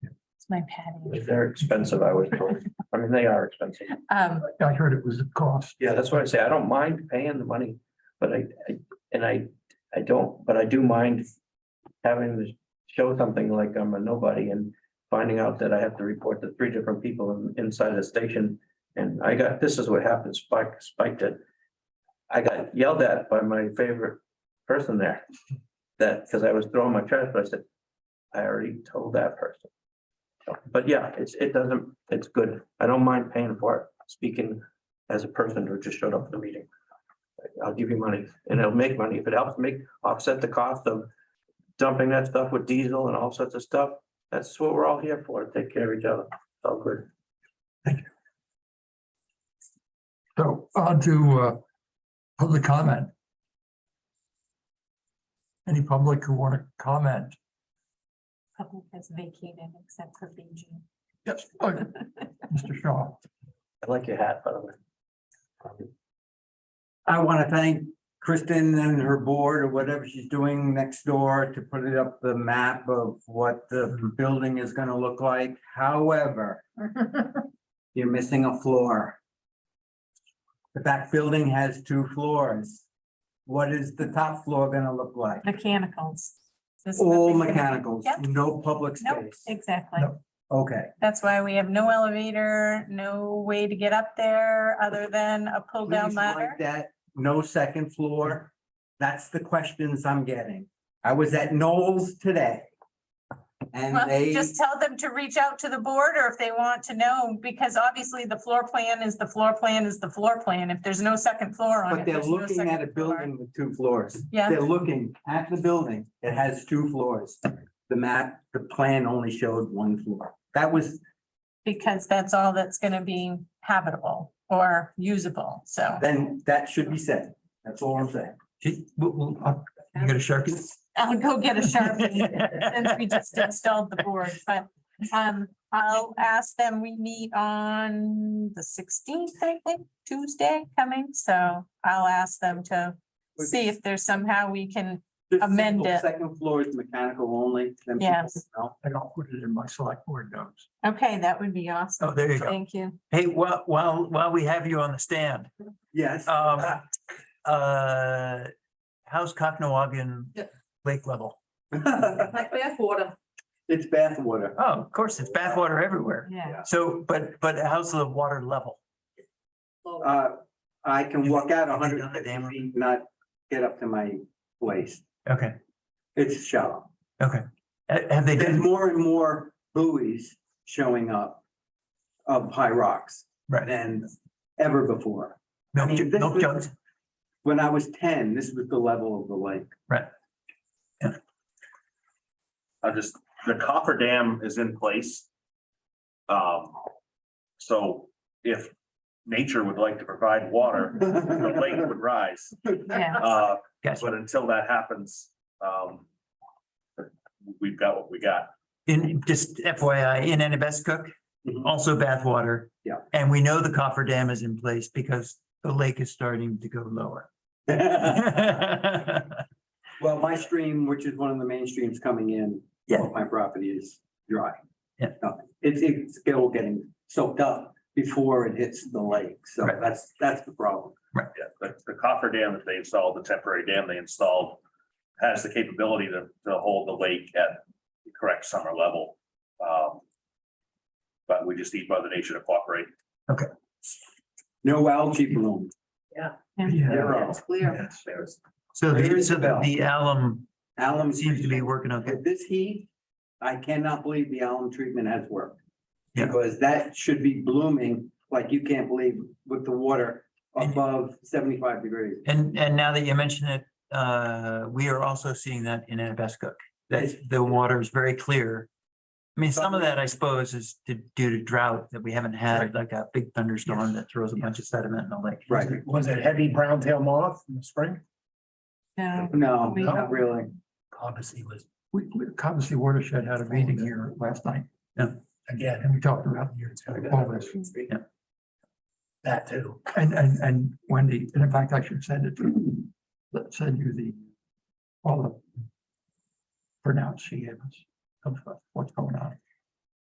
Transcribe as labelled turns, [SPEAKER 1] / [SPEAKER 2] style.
[SPEAKER 1] my patio.
[SPEAKER 2] They're expensive, I was told. I mean, they are expensive.
[SPEAKER 1] Um,
[SPEAKER 3] I heard it was a cost.
[SPEAKER 2] Yeah, that's what I say. I don't mind paying the money, but I, I, and I, I don't, but I do mind having to show something like I'm a nobody and finding out that I have to report to three different people in- inside the station. And I got, this is what happened, Spike, Spike did. I got yelled at by my favorite person there. That, because I was throwing my trash, but I said, I already told that person. So, But yeah, it's, it doesn't, it's good. I don't mind paying for it, speaking as a person who just showed up at the meeting. I'll give you money and it'll make money. If it helps make, offset the cost of dumping that stuff with diesel and all sorts of stuff, that's what we're all here for, take care of each other. It's All good.
[SPEAKER 3] So on to uh, public comment. Any public who want to comment?
[SPEAKER 1] public has vacated except for BG.
[SPEAKER 3] Yes. Mr. Shaw,
[SPEAKER 2] I like your hat, by the way.
[SPEAKER 4] I want to thank Kristen and her board or whatever she's doing next door to put it up the map of what
[SPEAKER 1] Mm-hmm.
[SPEAKER 4] the building is gonna look like. However, you're missing a floor. The back building has two floors. What is the top floor gonna look like?
[SPEAKER 1] Mechanicals. This is
[SPEAKER 4] All
[SPEAKER 1] nothing to-
[SPEAKER 4] mechanicals,
[SPEAKER 1] Yep.
[SPEAKER 4] no public
[SPEAKER 1] Nope,
[SPEAKER 4] space.
[SPEAKER 1] exactly.
[SPEAKER 3] Nope.
[SPEAKER 4] Okay,
[SPEAKER 1] That's why we have no elevator, no way to get up there other than a pull down
[SPEAKER 4] please
[SPEAKER 1] ladder.
[SPEAKER 4] like that, no second floor. That's the questions I'm getting. I was at Knowles today. And
[SPEAKER 1] Well,
[SPEAKER 4] they.
[SPEAKER 1] just tell them to reach out to the board or if they want to know, because obviously the floor plan is the floor plan is the floor plan. If there's no second floor on it.
[SPEAKER 4] But they're
[SPEAKER 1] there's no
[SPEAKER 4] looking at a
[SPEAKER 1] second floor.
[SPEAKER 4] building with two floors.
[SPEAKER 1] Yeah,
[SPEAKER 4] They're looking at the building. It has two floors. The map, the plan only showed one floor. That was,
[SPEAKER 1] because that's all that's gonna be habitable or usable, so.
[SPEAKER 4] then that should be said. That's all I'm saying.
[SPEAKER 3] gee, we'll- we'll- uh, you got a Sharpie?
[SPEAKER 1] I'll go get a Sharpie. since we just installed the board, but um, I'll ask them, we meet on the sixteenth, I think, Tuesday coming, so I'll ask them to see if there's somehow we can,
[SPEAKER 4] The
[SPEAKER 1] Amend
[SPEAKER 4] single
[SPEAKER 1] it.
[SPEAKER 4] Second floor is mechanical only. then people
[SPEAKER 1] Yes.
[SPEAKER 4] know.
[SPEAKER 3] And I'll put it in my select board notes.
[SPEAKER 1] okay, that would be
[SPEAKER 3] Oh,
[SPEAKER 1] awesome.
[SPEAKER 3] there you go.
[SPEAKER 1] Thank you.
[SPEAKER 5] Hey, while, while, while we have you on the stand,
[SPEAKER 4] Yes.
[SPEAKER 5] um, uh, how's Cocknoagan
[SPEAKER 4] Yeah.
[SPEAKER 5] lake level?
[SPEAKER 4] It's
[SPEAKER 6] Like bathwater.
[SPEAKER 4] bathwater.
[SPEAKER 5] Oh, of course, it's backwater everywhere.
[SPEAKER 1] Yeah,
[SPEAKER 5] So, but, but how's the water level?
[SPEAKER 6] Well,
[SPEAKER 4] Uh, I can walk out a
[SPEAKER 5] Have they
[SPEAKER 4] hundred
[SPEAKER 5] done the dam?
[SPEAKER 4] feet, not get up to my waist.
[SPEAKER 5] Okay,
[SPEAKER 4] It's shallow.
[SPEAKER 5] Ha- have they
[SPEAKER 4] There's
[SPEAKER 5] done,
[SPEAKER 4] more and more buoys showing up of high rocks
[SPEAKER 5] right,
[SPEAKER 4] than ever before. I
[SPEAKER 5] milk
[SPEAKER 4] mean,
[SPEAKER 5] ju-
[SPEAKER 4] this
[SPEAKER 5] milk
[SPEAKER 4] was-
[SPEAKER 5] jugs?
[SPEAKER 4] When I was ten, this was the level of the lake.
[SPEAKER 7] I just, the coffer dam is in place. Um, so if nature would like to provide water, the lake would rise.
[SPEAKER 1] yeah.
[SPEAKER 7] Uh,
[SPEAKER 5] Gotcha.
[SPEAKER 7] but until that happens, um, we've got what we got.
[SPEAKER 5] In, just FYI, in Anabescook,
[SPEAKER 4] Mhm.
[SPEAKER 5] also bathwater.
[SPEAKER 4] Yeah.
[SPEAKER 5] And we know the coffer dam is in place because the lake is starting to go lower.
[SPEAKER 4] Well, my stream, which is one of the main streams coming in.
[SPEAKER 5] Yeah.
[SPEAKER 4] off My property is dry.
[SPEAKER 5] Yeah.
[SPEAKER 4] Nothing. It's, it's still getting soaked up before it hits the lake. So
[SPEAKER 5] Right.
[SPEAKER 4] that's, that's the problem.
[SPEAKER 7] Yeah, the, the coffer dam that they installed, the temporary dam they installed, has the capability to, to hold the lake at the correct summer level. Um, But we just need Mother Nature to cooperate.
[SPEAKER 4] No algae bloom.
[SPEAKER 3] Yeah.
[SPEAKER 4] Zero.
[SPEAKER 6] It's clear.
[SPEAKER 7] There's-
[SPEAKER 5] So
[SPEAKER 4] Ring
[SPEAKER 5] there's,
[SPEAKER 4] the
[SPEAKER 5] so the
[SPEAKER 4] bell.
[SPEAKER 5] the alum
[SPEAKER 4] Alum
[SPEAKER 5] seems to be working okay.
[SPEAKER 4] At this heat, I cannot believe the alum treatment has worked.
[SPEAKER 5] Yeah.
[SPEAKER 4] Because that should be blooming like you can't believe with the water above seventy-five degrees.
[SPEAKER 5] And, and now that you mention it, uh, we are also seeing that in Anabescook, that the water is very clear. I mean, some of that, I suppose, is to- due to drought that we haven't had, like a big thunderstorm that throws a bunch of sediment in the lake.
[SPEAKER 4] Right.
[SPEAKER 3] Was it heavy brown tail moth in the spring?
[SPEAKER 1] No,
[SPEAKER 4] No,
[SPEAKER 1] We-
[SPEAKER 4] not really.
[SPEAKER 3] Cobbessy was. We, we, Cobbessy Watershed had a meeting here last night.
[SPEAKER 5] Yeah.
[SPEAKER 3] Again, and we talked about your, all this.
[SPEAKER 5] Yeah.
[SPEAKER 3] That too. And, and, and Wendy, and in fact, I should send it to, you. let's send you the, all the pronounce she gave us of what's going on.